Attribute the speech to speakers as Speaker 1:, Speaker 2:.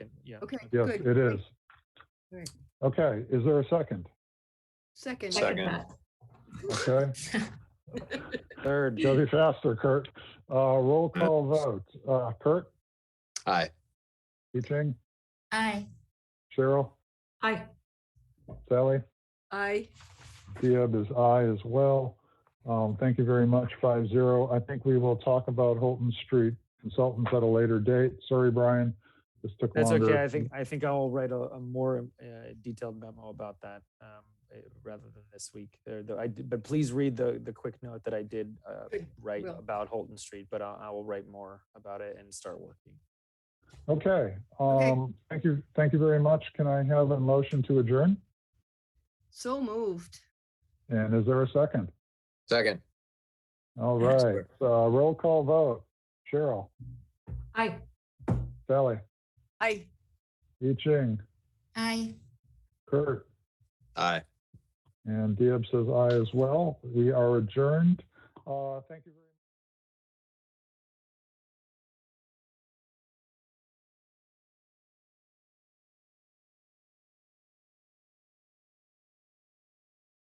Speaker 1: yeah.
Speaker 2: Okay,
Speaker 3: Yes,
Speaker 2: good.
Speaker 3: it is.
Speaker 2: Good.
Speaker 3: Okay, is there a second?
Speaker 2: Second.
Speaker 4: Second.
Speaker 3: Okay,
Speaker 5: Third.
Speaker 3: go be faster, Kurt. Uh, roll call vote. Uh, Kurt,
Speaker 4: Aye.
Speaker 3: Eeching,
Speaker 6: Aye.
Speaker 3: Cheryl,
Speaker 6: Aye.
Speaker 3: Sally?
Speaker 2: Aye.
Speaker 3: Diab is aye as well. Um, Thank you very much, five zero. I think we will talk about Holton Street Consultants at a later date. Sorry, Brian, this took
Speaker 5: That's
Speaker 3: longer.
Speaker 5: okay. I think, I think I'll write a, a more uh, detailed memo about that um, eh, rather than this week. There, though I did, but please read the, the quick note that I did uh,
Speaker 2: Good,
Speaker 5: write
Speaker 2: will.
Speaker 5: about Holton Street, but I, I will write more about it and start working.
Speaker 3: Okay, um, thank you, thank you very much. Can I have a motion to adjourn?
Speaker 2: So moved.
Speaker 3: And is there a second?
Speaker 4: Second.
Speaker 3: All
Speaker 4: Yes.
Speaker 3: right, uh, roll call vote. Cheryl,
Speaker 6: Aye.
Speaker 3: Sally,
Speaker 2: Aye.
Speaker 3: Eeching,
Speaker 6: Aye.
Speaker 3: Kurt,
Speaker 4: Aye.
Speaker 3: and Diab says aye as well. We are adjourned. Uh, Thank you very.